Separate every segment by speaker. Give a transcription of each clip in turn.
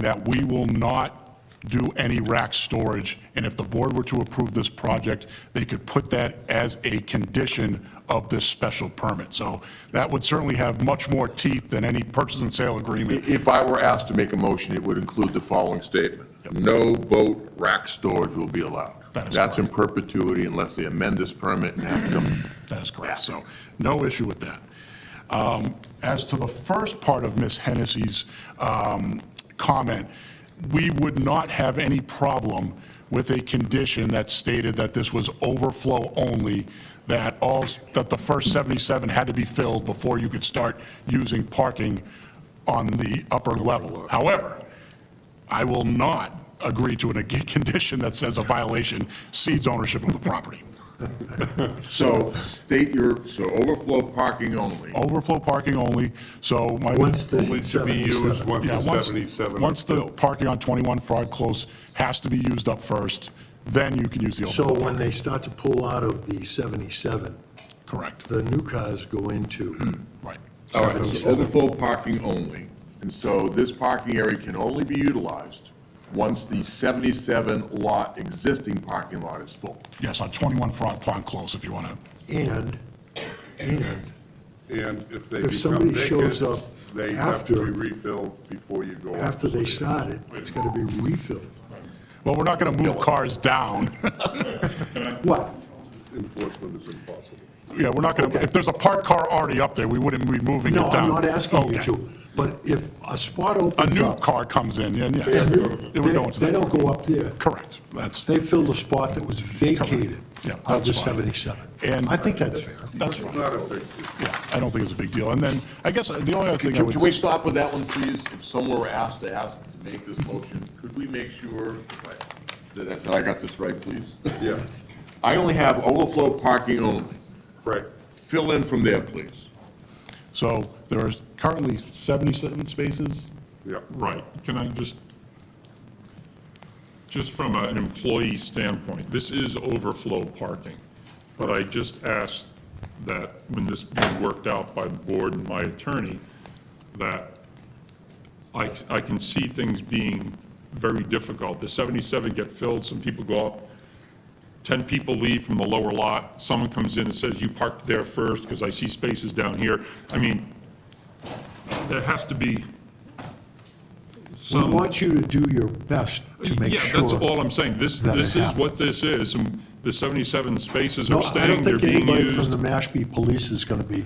Speaker 1: that we will not do any rack storage, and if the board were to approve this project, they could put that as a condition of this special permit. So that would certainly have much more teeth than any purchase and sale agreement.
Speaker 2: If I were asked to make a motion, it would include the following statement. No boat rack storage will be allowed.
Speaker 1: That is
Speaker 2: That's in perpetuity unless they amend this permit and have to,
Speaker 1: That is correct, so no issue with that. Um, As to the first part of Ms. Hennessy's um, comment, we would not have any problem with a condition that stated that this was overflow only, that all, that the first 77 had to be filled before you could start using parking on the upper level. However, I will not agree to a condition that says a violation cedes ownership of the property.
Speaker 2: so state your, so overflow parking only.
Speaker 1: overflow parking only, so my.
Speaker 3: Once the
Speaker 4: Only to be used
Speaker 3: 77.
Speaker 4: once
Speaker 1: Yeah,
Speaker 4: the
Speaker 1: once-
Speaker 4: 77 are
Speaker 1: Once the
Speaker 4: filled.
Speaker 1: parking on 21 Frog Close has to be used up first, then you can use the
Speaker 3: So
Speaker 1: overflow,
Speaker 3: when they start to pull out of the 77,
Speaker 1: correct,
Speaker 3: the new cars go into,
Speaker 1: right.
Speaker 2: All right, so overflow parking only. And so this parking area can only be utilized once the 77 lot existing parking lot is full.
Speaker 1: Yes, on 21 Frog Pond Close, if you want to,
Speaker 3: and, and
Speaker 4: And if they
Speaker 3: If
Speaker 4: become
Speaker 3: somebody shows
Speaker 4: vacant,
Speaker 3: up
Speaker 4: they have to be
Speaker 3: after-
Speaker 4: refilled before you go.
Speaker 3: after they start it, it's gonna be refilled.
Speaker 1: well, we're not going to move cars down.
Speaker 3: What?
Speaker 4: Enforcement is impossible.
Speaker 1: Yeah, we're not going to, if there's a parked car already up there, we wouldn't be moving it
Speaker 3: No,
Speaker 1: down.
Speaker 3: I'm not asking you
Speaker 1: Okay.
Speaker 3: to, but if a spot
Speaker 1: A
Speaker 3: opens
Speaker 1: new
Speaker 3: up.
Speaker 1: car comes in, and yes, it
Speaker 3: and you-
Speaker 1: would go into
Speaker 3: They they
Speaker 1: the,
Speaker 3: don't go up there.
Speaker 1: correct, that's.
Speaker 3: They fill the spot that was vacated
Speaker 1: Yeah,
Speaker 3: of the
Speaker 1: that's fine.
Speaker 3: 77.
Speaker 1: And-
Speaker 3: I think that's fair.
Speaker 1: That's
Speaker 4: It's
Speaker 1: right.
Speaker 4: not a big,
Speaker 1: Yeah, I don't think it's a big deal. And then, I guess, uh, the only other thing I
Speaker 2: Can
Speaker 1: would.
Speaker 2: can we stop with that one, please? If someone were asked to ask to make this motion, could we make sure that I- that I got this right, please?
Speaker 4: yeah,
Speaker 2: I only have overflow parking only.
Speaker 4: right.
Speaker 2: Fill in from there, please.
Speaker 1: So there are currently 77 spaces?
Speaker 4: Yeah.
Speaker 5: Right, can I just, just from an employee standpoint, this is overflow parking, but I just asked that when this being worked out by the board and my attorney, that I, I can see things being very difficult. The 77 get filled, some people go up, 10 people leave from the lower lot, someone comes in and says, you parked there first because I see spaces down here. I mean, there has to be
Speaker 3: We
Speaker 5: some.
Speaker 3: want you to do your best to make sure.
Speaker 5: Yeah, that's all I'm saying. This,
Speaker 3: that it
Speaker 5: this is
Speaker 3: happens.
Speaker 5: what this is, and the 77 spaces
Speaker 3: No,
Speaker 5: are
Speaker 3: I don't
Speaker 5: staying, they're
Speaker 3: think
Speaker 5: being
Speaker 3: anybody from
Speaker 5: used.
Speaker 3: the Mashpee Police is going to be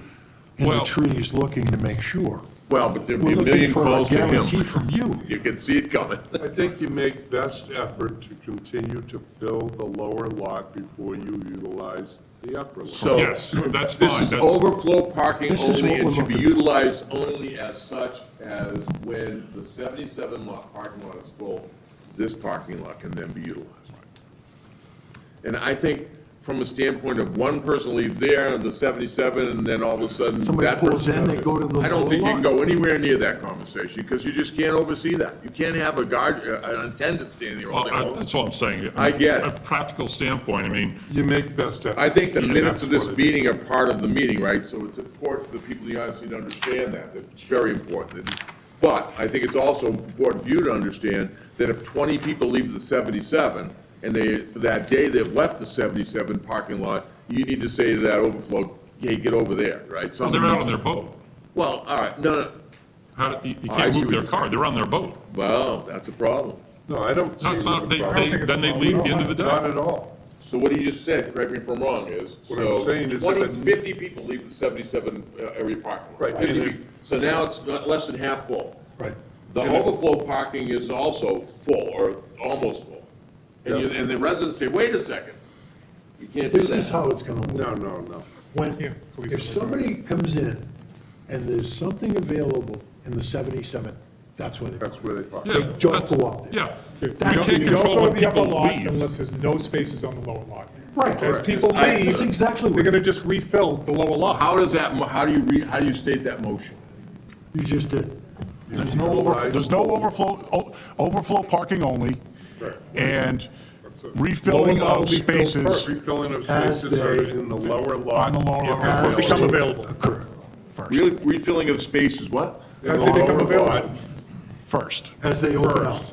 Speaker 3: in the
Speaker 5: Well-
Speaker 3: trees looking to make sure.
Speaker 2: Well, but there'd be
Speaker 3: We're
Speaker 2: a
Speaker 3: looking
Speaker 2: million
Speaker 3: for a
Speaker 2: calls to
Speaker 3: guarantee
Speaker 2: him.
Speaker 3: from you.
Speaker 2: You can see it coming.
Speaker 4: I think you make best effort to continue to fill the lower lot before you utilize the upper lot.
Speaker 2: So.
Speaker 5: Yes, that's
Speaker 2: This
Speaker 5: fine,
Speaker 2: is
Speaker 5: that's-
Speaker 2: overflow parking
Speaker 3: This is
Speaker 2: only
Speaker 3: what
Speaker 2: and
Speaker 3: we're
Speaker 2: should be
Speaker 3: looking for.
Speaker 2: utilized only as such as when the seventy-seven lot parking lot is full, this parking lot can then be utilized. And I think from a standpoint of one person leave there, the seventy-seven, and then all of a sudden
Speaker 3: Somebody
Speaker 2: that
Speaker 3: pulls
Speaker 2: person-
Speaker 3: in, they go to the
Speaker 2: I don't
Speaker 3: lower
Speaker 2: think you can
Speaker 3: lot.
Speaker 2: go anywhere near that conversation, because you just can't oversee that. You can't have a guard, uh, an attendant standing there all day
Speaker 5: Well, I-
Speaker 2: long.
Speaker 5: That's all I'm saying.
Speaker 2: I get it.
Speaker 5: A practical standpoint, I mean,
Speaker 4: You make best effort.
Speaker 2: I think the
Speaker 4: Yeah,
Speaker 2: minutes of this
Speaker 4: that's what it-
Speaker 2: meeting are part of the meeting, right? So it's important for the people in the audience to understand that, that's very important. But I think it's also important for you to understand that if twenty people leave the seventy-seven, and they, for that day, they've left the seventy-seven parking lot, you need to say to that overflow, hey, get over there, right?
Speaker 5: well, they're out on their boat.
Speaker 2: Well, all right, no, no,
Speaker 5: How, did- you you
Speaker 3: Oh,
Speaker 2: I
Speaker 5: can't
Speaker 2: see
Speaker 5: move
Speaker 2: what
Speaker 5: their
Speaker 2: you're
Speaker 5: car, they're on their boat.
Speaker 2: well, that's a problem.
Speaker 4: No, I don't. see
Speaker 5: No, it's
Speaker 4: it as
Speaker 5: not,
Speaker 4: a
Speaker 5: they,
Speaker 4: problem.
Speaker 5: they, then they leave at the end of the
Speaker 4: Not
Speaker 5: day.
Speaker 4: at all.
Speaker 2: So what he just said, correct me if I'm wrong, is,
Speaker 4: What I'm
Speaker 2: so
Speaker 4: saying is
Speaker 2: 20,
Speaker 4: that-
Speaker 2: 50 people leave the seventy-seven uh, area parking lot.
Speaker 4: Right,
Speaker 2: 50
Speaker 4: and if-
Speaker 2: people. So now it's not less than half full.
Speaker 3: Right.
Speaker 2: The
Speaker 4: And if-
Speaker 2: overflow parking is also full, or almost full. And you,
Speaker 4: Yeah.
Speaker 2: and the residents say, wait a second, you can't do
Speaker 3: This is
Speaker 2: that.
Speaker 3: how it's going to work.
Speaker 4: No, no, no.
Speaker 3: When, if somebody comes in and there's something available in the 77, that's when it,
Speaker 4: That's where they park.
Speaker 5: Yeah,
Speaker 3: they don't
Speaker 5: that's-
Speaker 3: go up there.
Speaker 5: Yeah.
Speaker 6: You
Speaker 5: You
Speaker 3: That's-
Speaker 6: can't
Speaker 5: can't control
Speaker 6: go to
Speaker 5: when
Speaker 6: the upper
Speaker 5: people
Speaker 6: lot
Speaker 5: leave.
Speaker 6: unless there's no spaces on the lower lot.
Speaker 3: Right.
Speaker 6: As people
Speaker 2: I-
Speaker 6: leave,
Speaker 3: That's exactly
Speaker 6: they're
Speaker 3: what,
Speaker 6: gonna just refill the lower lot.
Speaker 2: How does that, mo- how do you re, how do you state that motion?
Speaker 3: you just did.
Speaker 1: There's no over, there's no overflow, o- overflow parking only, and refilling
Speaker 3: Lower lot will
Speaker 1: of
Speaker 3: be filled
Speaker 1: spaces
Speaker 3: first.
Speaker 4: Refilling of
Speaker 3: As
Speaker 4: spaces are
Speaker 3: they-
Speaker 4: in the lower lot.
Speaker 1: on the lower.
Speaker 3: As
Speaker 6: Become
Speaker 3: to
Speaker 6: available.
Speaker 3: Occur.
Speaker 2: Really, refilling of spaces, what?
Speaker 4: In the
Speaker 6: As they
Speaker 4: lower
Speaker 6: become
Speaker 4: lot,
Speaker 6: available.
Speaker 7: first.
Speaker 8: as they open up.
Speaker 3: First.